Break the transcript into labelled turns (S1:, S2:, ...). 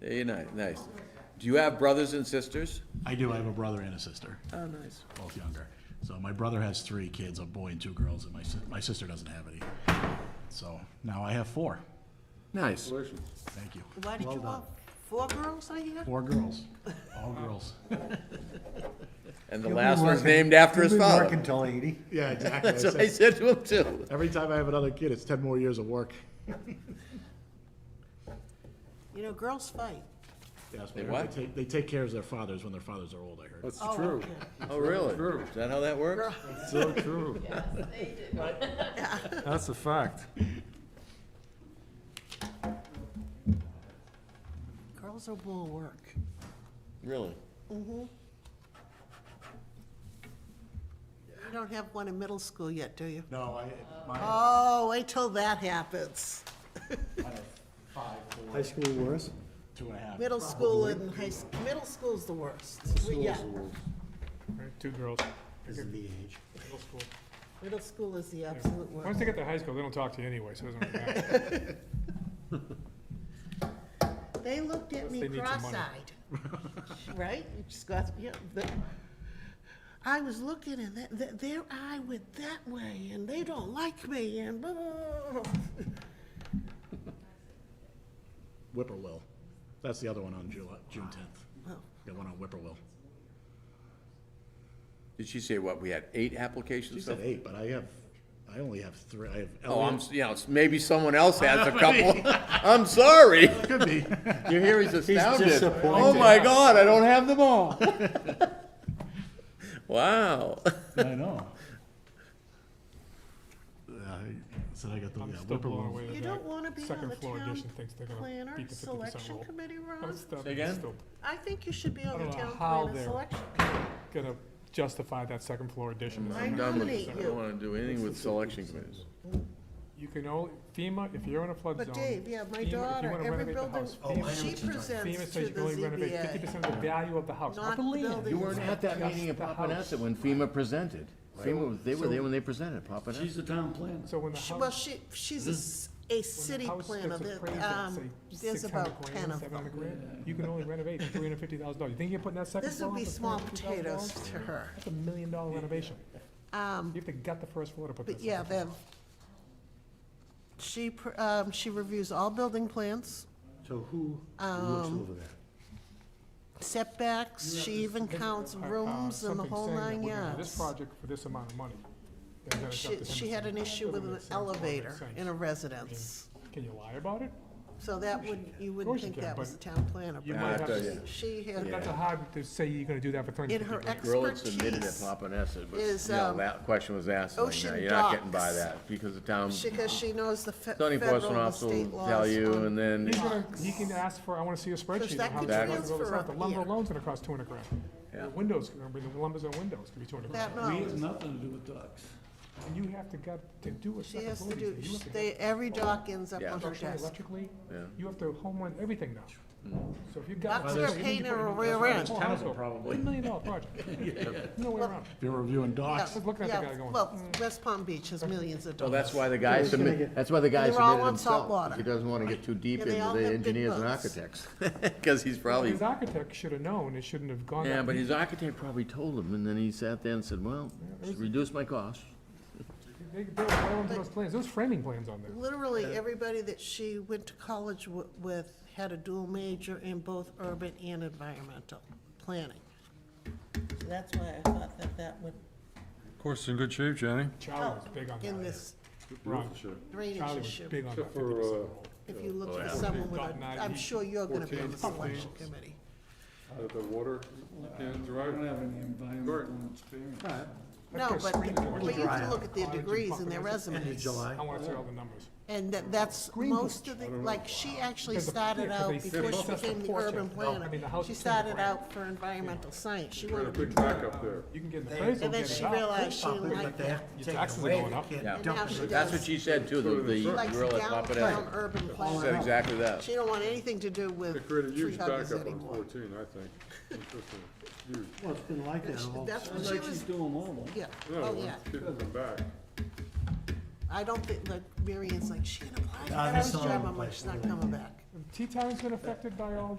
S1: Very nice, nice. Do you have brothers and sisters?
S2: I do, I have a brother and a sister,
S1: Oh, nice.
S2: both younger. So my brother has three kids, a boy and two girls, and my, si- my sister doesn't have any. So now I have four.
S1: Nice.
S2: Thank you.
S3: Why did you want four girls, I hear?
S2: Four girls, all girls.
S1: And the
S4: He'll be
S1: last one's
S4: working-
S1: named after
S4: he'll
S1: his
S4: be
S1: father.
S4: Working till eighty.
S2: Yeah, exactly.
S1: That's what I said to him too.
S2: Every time I have another kid, it's ten more years of work.
S3: You know, girls fight.
S2: Yes,
S1: They
S2: they
S1: what?
S2: take, they take care of their fathers when their fathers are old, I heard.
S5: That's
S3: Oh,
S5: true.
S3: okay.
S1: Oh, really? Is that how that works?
S5: So true. That's a fact.
S3: Girls are more work.
S1: Really?
S3: You don't have one in middle school yet, do you?
S2: No, I, my,
S3: Oh, wait till that happens.
S2: five, four,
S4: High school worse.
S2: two and a half.
S3: Middle school and high, s- middle school's the worst. We- Yeah,
S6: Right, Two girls,
S4: This is the age.
S6: middle school.
S3: middle school is the absolute
S6: Once
S3: worst.
S6: they get to high school, they don't talk to you anyway, so it doesn't really matter.
S3: They looked at me
S6: Unless they need some money.
S3: cross-eyed. Right? You just got, yeah, the- I was looking and that, that, their eye went that way and they don't like me and blah, blah, blah, blah.
S2: Whippoorwill. That's the other one on July, June tenth.
S3: Wow.
S2: Got one on Whippoorwill.
S1: Did she say what, we had eight
S2: She
S1: applications? so
S2: said eight, but I have, I only have three. I have
S1: Oh, I'm,
S2: Elliot.
S1: s- you know, s- maybe someone else has a couple.
S2: maybe.
S1: I'm sorry.
S2: Could be.
S1: You hear he's astounded. Oh
S4: disappointed.
S1: my God, I don't have them all. Wow.
S2: I know. I said I got the, yeah,
S6: I'm still blown
S2: Whippoorwill.
S6: away
S3: You
S6: that
S3: don't
S6: that
S3: want to be on
S6: second
S3: the
S6: floor
S3: town
S6: addition thinks they're gonna
S3: planner
S6: beat the fifty percent
S3: selection
S6: rule.
S3: committee,
S6: I'm
S3: Ron.
S6: still-
S1: Say again?
S6: still
S3: I think you should be on
S6: I
S3: the
S6: don't know
S3: town
S6: how
S3: planner
S6: they're-
S3: selection.
S6: Gonna justify that second floor addition.
S3: I
S1: I'm done with
S3: nominate
S1: this. I
S3: you.
S1: don't wanna do anything with selection committees.
S6: You can only, FEMA, if you're in a flood zone.
S3: But Dave, yeah,
S6: FEMA-
S3: my
S6: if you
S3: daughter,
S6: wanna
S3: every
S6: renovate the
S3: building,
S6: house, Oh, FEMA-
S3: she
S6: FEMA
S3: presents to
S6: says you
S3: the
S6: can only renovate fifty
S3: ZBA.
S6: percent of the value of the house.
S3: Not
S6: I
S3: the
S6: believe
S3: building.
S6: you.
S3: You weren't
S1: at that
S6: meeting in Papaneset
S1: when FEMA presented. FEMA, they were there when they presented,
S5: She's
S1: Papaneset.
S5: the town planner.
S6: So when the
S3: She- Well,
S6: house,
S3: she, she's a s- a city
S6: house
S3: planner,
S6: gets
S3: but,
S6: appraised at,
S3: um,
S6: say,
S3: there's
S6: six hundred
S3: about ten
S6: grand,
S3: of
S6: seven hundred
S3: them.
S6: grand, you can only renovate three hundred fifty thousand dollars. You think you're putting that second
S3: This
S6: floor
S3: would be
S6: on for
S3: small
S6: $350,000?
S3: potatoes to her.
S6: That's a million dollar renovation.
S3: Um,
S6: You have to gut the first floor to put this
S3: But
S6: in.
S3: yeah, then, she, pr- um, she reviews all building plans,
S4: So who looks
S3: Um,
S4: over that?
S3: setbacks, she even counts
S6: uh, uh,
S3: rooms and the
S6: something
S3: whole
S6: saying that
S3: nine
S6: we're gonna do
S3: yards.
S6: This project for this amount of money. they're gonna
S3: She,
S6: shut this
S3: she
S6: in.
S3: had an issue with
S6: Doesn't
S3: an
S6: make sense, doesn't make
S3: elevator
S6: sense.
S3: in a residence,
S6: Can you lie about it?
S3: so that would, you wouldn't
S6: course you
S3: think
S6: can,
S3: that
S6: but
S3: was a town planner.
S6: You
S1: I
S3: but
S6: might have
S1: tell
S6: to,
S1: you.
S3: She had,
S6: that's a hard to say you're gonna do that for three
S3: in
S6: hundred
S3: her
S6: fifty grand.
S1: Grillitz admitted at
S3: expertise,
S1: Papaneset, but,
S3: is,
S1: you know,
S3: um,
S1: that question was asked, like, no,
S3: ocean
S1: you're not getting by
S3: docks.
S1: that, because the town,
S3: because she knows the fe-
S1: zoning
S3: federal
S1: enforcement
S3: and
S1: officer
S3: state
S1: will
S3: laws.
S1: tell you,
S3: on-
S1: and then,
S6: He's gonna, he can ask for, I wanna see a spreadsheet
S3: that
S6: of how
S3: could
S6: much it's gonna
S3: transfer
S6: cost. The
S3: up
S6: lumber
S3: here.
S6: loane's gonna cost two hundred grand. The Windows, remember, the lumber's on windows, could be two hundred grand.
S3: That
S5: We
S3: knowledge.
S5: have nothing to do with ducks.
S6: And you have to gut, to do a
S3: She
S6: second
S3: has
S6: floor.
S3: to do,
S6: these days. You have to
S3: they,
S6: gut
S3: every dock ends up
S1: Yeah.
S3: on her
S6: structurally,
S3: desk.
S6: Electrically,
S1: Yeah. Hmm.
S6: you have to home run everything now. So if you gut.
S3: That's her painter or rear end.
S5: Terrible, probably.
S6: Million dollar project. No way around.
S2: If you're reviewing docs,
S6: Just looking at the
S3: Yeah,
S6: guy going,
S3: Well, West Palm Beach has millions of
S1: well,
S3: dollars.
S1: that's why the guy submitted, that's why the guy
S3: They're all
S1: submitted
S3: on
S1: himself.
S3: saltwater.
S1: He doesn't wanna get too deep
S3: Yeah, they all
S1: into the
S3: have big
S1: engineers and
S3: boats.
S1: architects, cause he's probably,
S6: his architect should have known, it shouldn't have gone
S1: yeah,
S6: that
S1: but
S6: deep.
S1: his architect probably told him, and then he sat there and said, well, reduce my cost.
S6: They, they were going through those plans, those framing plans on there.
S3: Literally, everybody that she went to college wi- with had a dual major in both urban and environmental planning. So That's why I thought that that would
S5: Of course, in good shape, Jenny.
S6: Charlie was
S3: help
S6: big on that.
S3: in this
S6: Ron,
S3: drainage
S6: Charlie was
S3: issue.
S6: big on that.
S7: uh,
S3: If you look for someone with a, I'm sure you're gonna be on the selection committee.
S7: out of the water and
S5: I
S7: drive.
S5: don't have any environmental experience.
S3: No,
S6: That's
S3: but,
S6: gonna screen
S3: but you have
S6: Georgia.
S3: to look at their degrees and their resumes.
S6: I wanna see all the numbers.
S3: And that, that's most of the, like, she actually
S6: Because the-
S3: started
S6: yeah, 'cause
S3: out,
S6: they
S3: before she
S6: said-
S3: became the
S6: Porch,
S3: urban
S6: no, I
S3: planner,
S6: mean, the house
S3: she
S6: is timber
S3: started
S6: frame.
S3: out for environmental science, she
S7: Got a
S3: wanted to be.
S7: big back up there.
S6: You can get an appraisal,
S3: And then
S6: get it
S3: she
S6: out.
S3: realized she
S4: But
S3: liked
S4: they
S3: that,
S4: have to
S6: Your
S4: take it
S6: taxes are
S4: away.
S6: going
S4: They
S6: up.
S4: can't
S1: Yeah.
S4: dump
S3: Now
S4: it.
S3: she does.
S1: That's what she said too, the, the
S3: she likes
S1: gorilla at
S3: downtown
S1: Papaneset.
S3: urban
S1: She said
S3: planning.
S1: exactly that.
S3: She don't want anything to do with
S7: They created a
S3: tree
S7: huge
S3: huggers
S7: backup on
S3: anymore.
S7: fourteen, I think. Interesting, huge.
S4: Well, it's been like that all.
S3: That's what
S4: Sounds
S3: she
S4: like
S3: was-
S4: She's doing well.
S3: Yeah,
S7: No,
S3: oh,
S7: when
S3: yeah,
S7: people come back.
S3: I don't think, like, Marion's like, she can apply for
S4: Ah,
S3: that, I
S4: that's
S3: was
S4: all
S3: driving,
S4: over
S3: I'm
S4: the
S3: like,
S4: place.
S3: she's not coming back.
S6: T-Town's been affected by all